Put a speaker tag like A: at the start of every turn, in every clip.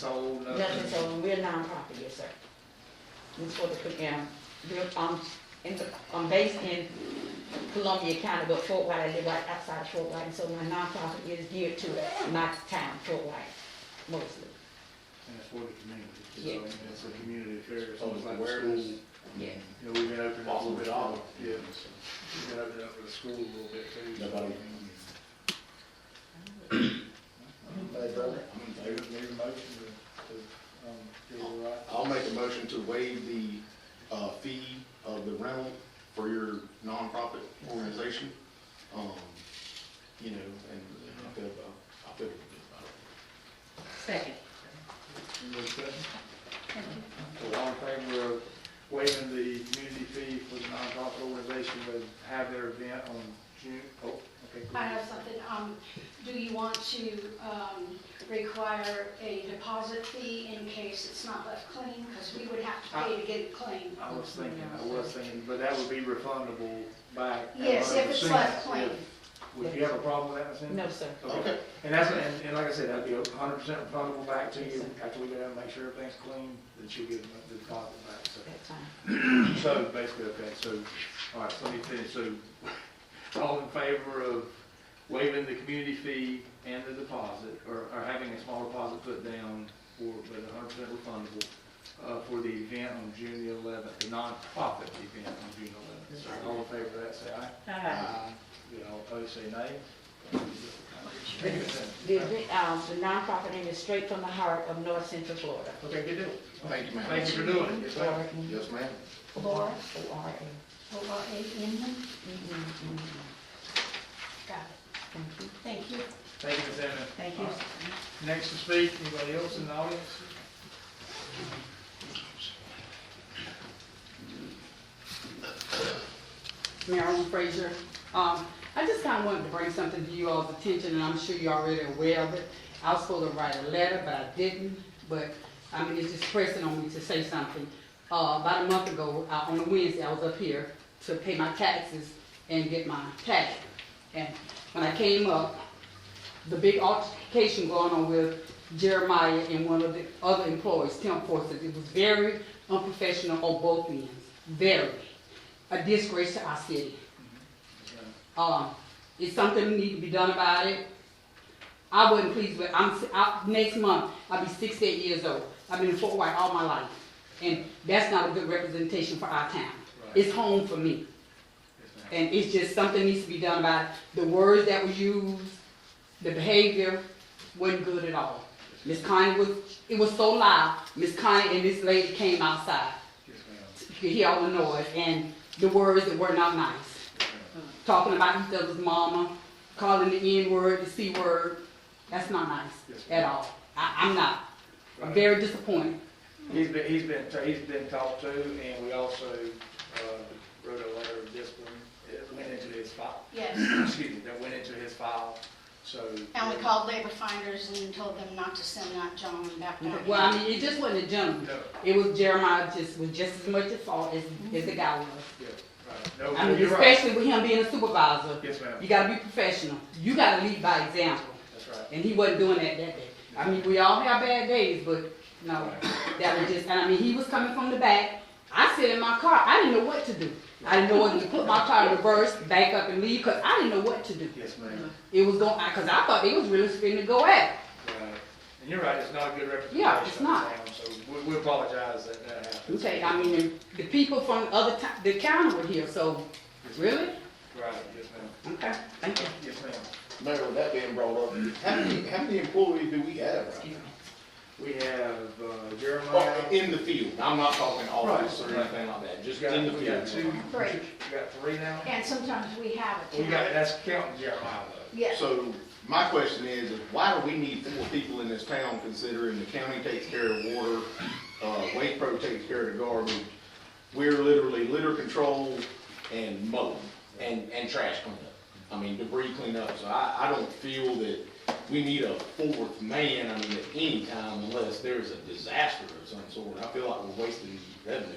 A: sold,
B: Nothing,
A: nothing.
B: so we're nonprofit, yes, sir. It's for the Cook County, we're, um, in, the- I'm based in Columbia County, but Fort White, I live right outside of Fort White, and so my nonprofit is geared to my town, Fort White, mostly,
A: And it's for the community,
B: Yeah.
A: so it's a community affair, it's
C: Oh,
A: almost
C: it's
A: like
C: awareness.
A: awareness.
B: yeah.
A: You know, we've been opening up a little bit off, yeah,
C: so.
A: we've been opening up for the school a little bit too. so-
C: Nobody. I'm in favor of it. I'm in
A: Maybe,
C: favor.
A: maybe motion to, to, um, give it a right.
C: I'll make a motion to waive the, uh, fee of the rental for your nonprofit organization. Um, you know, and I feel, about- I feel good about it.
B: Second.
A: Any more discussion? So all in favor of waiving the community fee for the nonprofit organization to have their event on June, oh, okay. go
D: I
A: ahead.
D: have something, um, do you want to, um, require a deposit fee in case it's not left clean? Because we would have to pay to get it clean.
A: I was thinking, I was thinking, but that would be refundable back. at
D: Yes, if it's
A: 100%.
D: left clean.
A: Would you have a problem with that, Ms. Henderson?
B: No, sir.
A: Okay, and that's, and, and like I said, that'd be a hundred percent refundable back to you, after we go down and make sure everything's clean, that you get the deposit back, so.
B: That's fine.
A: So basically, okay, so, all right, so let me finish, so, all in favor of waiving the community fee and the deposit, or, or having a small deposit put down for, but a hundred percent refundable, uh, for the event on June the eleventh, the nonprofit event on June eleventh, so all in favor of that, say aye. Aye. You know, opposed, say
B: The,
A: nay.
B: event, um, the nonprofit name is straight from the heart of North Central Florida.
A: Okay, good deal.
C: Thank you,
A: Thank
C: ma'am.
A: you for doing it. Yes, ma'am.
C: Yes, ma'am.
D: Laura,
B: O R A.
D: O R A N,
B: Mhm, mhm.
D: got
B: Thank you.
D: it, thank you.
A: Thank you, Ms. Hammond.
B: Thank you.
A: Next to speak, anybody else in the audience?
E: Marilyn Fraser. Um, I just kind of wanted to bring something to you all's attention, and I'm sure you're already aware of it. I was supposed to write a letter, but I didn't, but, I mean, it's just pressing on me to say something. Uh, about a month ago, uh, on a Wednesday, I was up here to pay my taxes and get my tax. And when I came up, the big altercation going on with Jeremiah and one of the other employees, Tim Forsyth, it was very unprofessional on both ends, very. A disgrace to our city. Um, it's something that need to be done about it. I wasn't pleased with, I'm, I, next month, I'll be sixty-eight years old. I've been in Fort White all my life, and that's not a good representation for our town.
A: Right.
E: It's home for me.
A: Yes, ma'am.
E: And it's just something needs to be done about it. The words that were used, the behavior wasn't good at all. Miss Connie was, it was so loud, Miss Connie and this lady came outside.
A: Yes, ma'am.
E: You could hear all the noise and the words that were not nice. Talking about each other's mama, calling the N-word, the C-word, that's not nice at all. I, I'm not, I'm very disappointed.
A: He's been, he's been, he's been talked to, and we also, uh, wrote a letter of discipline, it went into his file,
D: Yes,
A: excuse me, that went into his file, so.
D: and we called labor finders and told them not to send that gentleman back down.
E: Well, I mean, it just wasn't a gentleman.
A: No,
E: It was Jeremiah just, was just as much at fault as, as the guy was.
A: yeah, right,
E: I
A: no,
E: mean,
A: you're right,
E: especially with him being a supervisor,
A: yes, ma'am,
E: you gotta be professional. You gotta lead by example.
A: that's right.
E: And he wasn't doing that that day. I mean, we all have bad days, but no, that was just, and I mean, he was coming from the back. I sit in my car, I didn't know what to do. I didn't know whether to put my car in reverse, back up and leave, cause I didn't know what to do.
A: Yes, ma'am,
E: It was going, I- cause I thought they was really spinning to go at. it.
A: right, and you're right, it's not a good representation
E: Uh-huh. Yeah,
A: of
E: it's
A: the
E: not.
A: town, so we, we apologize that that happened.
E: Okay, I mean, and the people from other town, the county were here, so, really?
A: Right, yes, ma'am,
E: Okay, thank you.
A: yes, ma'am.
C: Mayor, with that being brought up, how many, how many employees do we have uh, right now?
A: We have uh,
C: Well,
A: Jeremiah.
C: in the field, I'm not talking office or
A: Right, right.
C: anything like that,
A: We
C: just
A: got-
C: in the
A: We got two.
C: field.
D: Three.
A: We got three now?
D: And sometimes we have it.
A: We got, that's counting Jeremiah though.
D: Yes,
C: So my question is, is why do we need four people in this town considering the county takes care of water, uh, Wake Pro takes care of the garbage? We're literally litter control and mowing and, and trash cleanup. I mean debris cleanup, so I, I don't feel that we need a fourth man, I mean, at any time unless there's a disaster of some sort. I feel like we're wasting revenue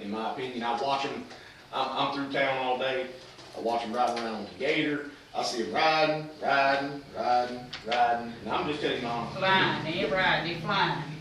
C: in my opinion. I watch them, I'm, I'm through town all day, I watch them ride around on the gator, I see them riding, riding, riding, riding, and I'm just telling you, Mom,
E: Flying, they ain't riding, they flying.